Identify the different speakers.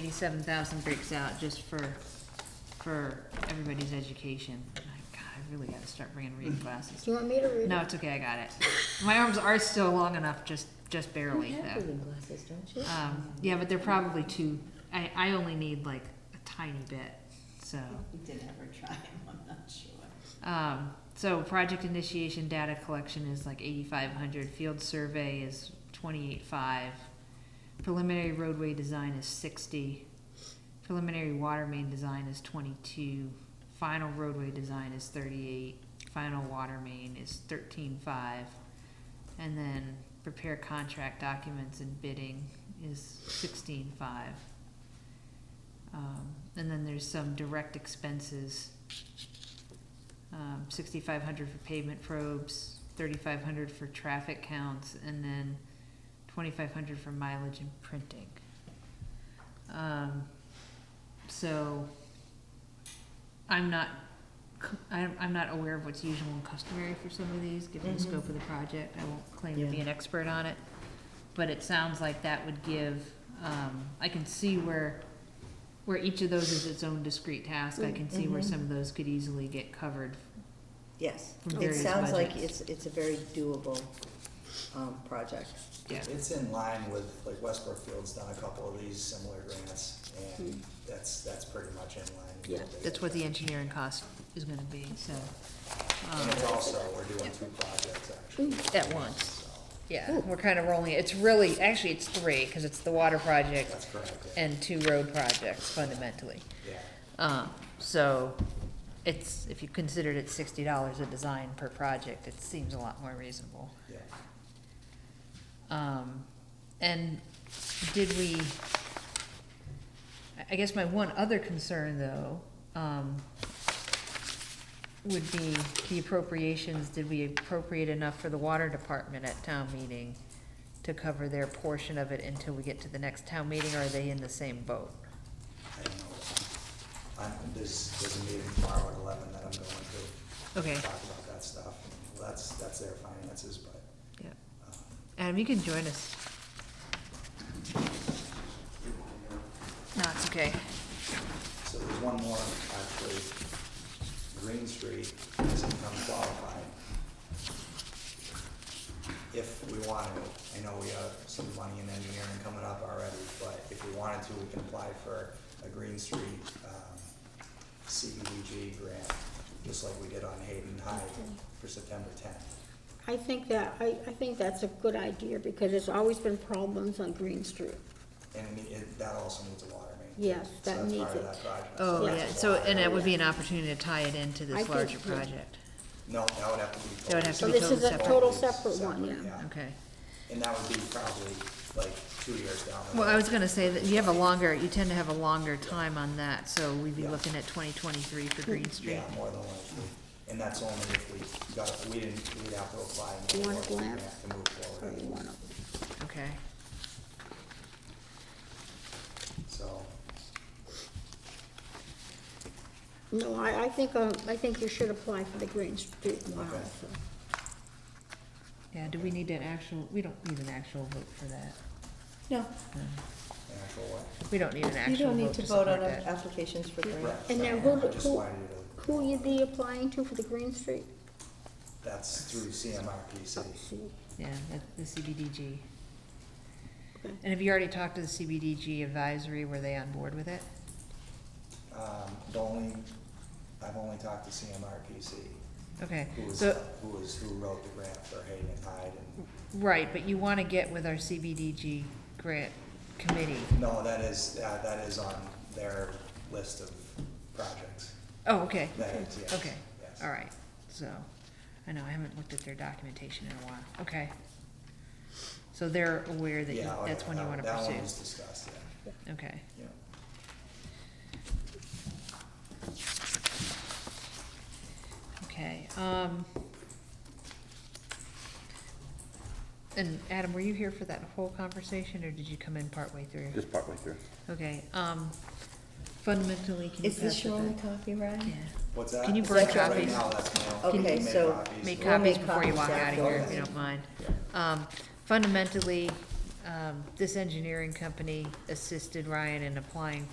Speaker 1: eighty-seven thousand breaks out, just for, for everybody's education. My God, I really gotta start bringing reading glasses.
Speaker 2: Do you want me to read?
Speaker 1: No, it's okay, I got it. My arms are still long enough, just, just barely,
Speaker 2: You have
Speaker 1: though.
Speaker 2: reading glasses, don't you?
Speaker 1: Um, yeah, but they're probably too, I, I only need like a tiny bit, so.
Speaker 3: We did ever try him, I'm not sure.
Speaker 1: Um, so project initiation data collection is like eighty-five hundred, field survey is twenty-eight-five, preliminary roadway design is sixty, preliminary water main design is twenty-two, final roadway design is thirty-eight, final water main is thirteen-five, and then prepare contract documents and bidding is sixteen-five. Um, and then there's some direct expenses um, sixty-five hundred for pavement probes, thirty-five hundred for traffic counts, and then twenty-five hundred for mileage and printing. Um, so, I'm not, c- I'm, I'm not aware of what's usual and customary for some of these, given the
Speaker 2: Mhm.
Speaker 1: scope of the project, I won't claim to be
Speaker 2: Yeah.
Speaker 1: an expert on it. But it sounds like that would give, um, I can see where, where each of those is its own discrete task, I can see where
Speaker 2: Mhm.
Speaker 1: some of those could easily get covered
Speaker 2: Yes,
Speaker 1: From
Speaker 2: it
Speaker 1: various
Speaker 2: sounds like
Speaker 1: budgets.
Speaker 2: it's, it's a very doable, um, project.
Speaker 1: Yeah,
Speaker 4: It's in line with, like Westbrook Field's done a couple of these similar grants, and that's, that's pretty much in line. with
Speaker 2: Yeah,
Speaker 4: they-
Speaker 1: Hmm. that's what the engineering cost is gonna be, so. um, Hmm,
Speaker 4: And it's also, we're doing two projects actually.
Speaker 1: At once,
Speaker 4: So,
Speaker 1: yeah, we're kinda rolling, it. it's really, actually, it's three, cause it's the water project
Speaker 4: That's correct, yeah.
Speaker 1: and two road projects fundamentally.
Speaker 4: yeah.
Speaker 1: Um, so, it's, if you considered it sixty dollars a design per project, it seems a lot more reasonable.
Speaker 4: Yeah.
Speaker 1: Um, and did we, I- I guess my one other concern though, um, would be the appropriations, did we appropriate enough for the water department at town meeting to cover their portion of it until we get to the next town meeting, or are they in the same boat?
Speaker 4: I don't know. I'm, there's, there's a meeting tomorrow at eleven that I'm going
Speaker 1: Okay,
Speaker 4: to talk about that stuff. Well, that's, that's their finances, but,
Speaker 1: yeah,
Speaker 4: um,
Speaker 1: Adam, you can join us. No, it's okay.
Speaker 4: So there's one more, actually. Green Street is income qualified. If we want to, I know we have some money in engineering coming up already, but if we wanted to, we can apply for a Green Street, um, CDBG grant, just like we did on Hayden High for September tenth.
Speaker 5: I think that, I, I think that's a good idea, because there's always been problems on Green Street.
Speaker 4: And it, need- it- that also needs a water main.
Speaker 5: Yes,
Speaker 4: So
Speaker 5: that
Speaker 4: that's part
Speaker 5: needs
Speaker 4: of
Speaker 5: it.
Speaker 4: that project.
Speaker 1: Oh,
Speaker 5: Yeah.
Speaker 1: yeah, so, and it would be an opportunity to tie it into
Speaker 5: I
Speaker 1: this
Speaker 5: think,
Speaker 1: larger
Speaker 5: yeah.
Speaker 1: project.
Speaker 4: No, that would have to be.
Speaker 1: That would have
Speaker 5: So
Speaker 1: to be
Speaker 5: this is a
Speaker 1: separate.
Speaker 5: total separate one, yeah.
Speaker 1: Okay.
Speaker 4: And that would be probably like two years down the road.
Speaker 1: Well, I was gonna say that you have a longer, you tend to have a longer time on that, so we'd be looking at twenty twenty-three for Green Street.
Speaker 4: Yeah, more than likely, and that's only if we got, we didn't, we'd have to apply. and
Speaker 5: Do you want a
Speaker 4: get more, we'd
Speaker 5: glance?
Speaker 4: have To move
Speaker 5: Or
Speaker 4: forward,
Speaker 5: you want to-
Speaker 1: Okay.
Speaker 4: so,
Speaker 5: No, I, I think, um, I think you should apply for the Green Street one
Speaker 4: Okay.
Speaker 5: also.
Speaker 1: Yeah, do we need an actual, we don't need an actual vote for that.
Speaker 2: No,
Speaker 4: an actual what?
Speaker 1: We don't need an
Speaker 2: you
Speaker 1: actual
Speaker 2: don't need
Speaker 1: vote
Speaker 2: to
Speaker 1: to
Speaker 2: vote
Speaker 1: support
Speaker 2: on
Speaker 1: that.
Speaker 2: applications for grant.
Speaker 4: Right,
Speaker 5: And now
Speaker 4: right,
Speaker 5: who,
Speaker 4: I just
Speaker 5: who,
Speaker 4: wanted to-
Speaker 5: who you be applying to for the Green Street? Oh,
Speaker 4: That's through CMRPC,
Speaker 1: Yeah, that- the CBDG.
Speaker 5: Okay.
Speaker 1: And have you already talked to the CBDG advisory, were they on board with it?
Speaker 4: um, the only, I've only talked to CMRPC,
Speaker 1: Okay,
Speaker 4: who was,
Speaker 1: so,
Speaker 4: who was, who wrote the grant for Hayden and Hyde,
Speaker 1: right, but you wanna get with our CBDG grant committee.
Speaker 4: and, no, that is, uh, that is on their list of projects,
Speaker 1: Oh, okay.
Speaker 4: that is, yes.
Speaker 1: Okay,
Speaker 4: yes.
Speaker 1: all right, so, I know, I haven't looked at their documentation in a while, okay. So they're aware that you-
Speaker 4: Yeah, oh,
Speaker 1: that's
Speaker 4: yeah,
Speaker 1: one you
Speaker 4: that-
Speaker 1: wanna
Speaker 4: That one was
Speaker 1: pursue,
Speaker 4: discussed, yeah,
Speaker 1: okay.
Speaker 4: yeah.
Speaker 1: Okay, um. And Adam, were you here for that whole conversation, or did you come in partway through?
Speaker 6: Just partway through.
Speaker 1: Okay, um, fundamentally, can you
Speaker 2: Is this
Speaker 1: pass
Speaker 2: your
Speaker 1: the-
Speaker 2: only copy, Ryan?
Speaker 1: Yeah,
Speaker 4: What's that?
Speaker 1: Can you
Speaker 4: Is
Speaker 1: burn
Speaker 4: that right
Speaker 1: copies?
Speaker 4: now, that's my own-
Speaker 2: Okay,
Speaker 4: make
Speaker 2: so
Speaker 4: copies,
Speaker 1: make
Speaker 4: but-
Speaker 2: We'll
Speaker 1: copies
Speaker 2: make
Speaker 1: before you walk
Speaker 2: copies
Speaker 1: out of here, if
Speaker 2: afterwards.
Speaker 1: you don't mind. Um, fundamentally, um, this engineering company assisted Ryan in applying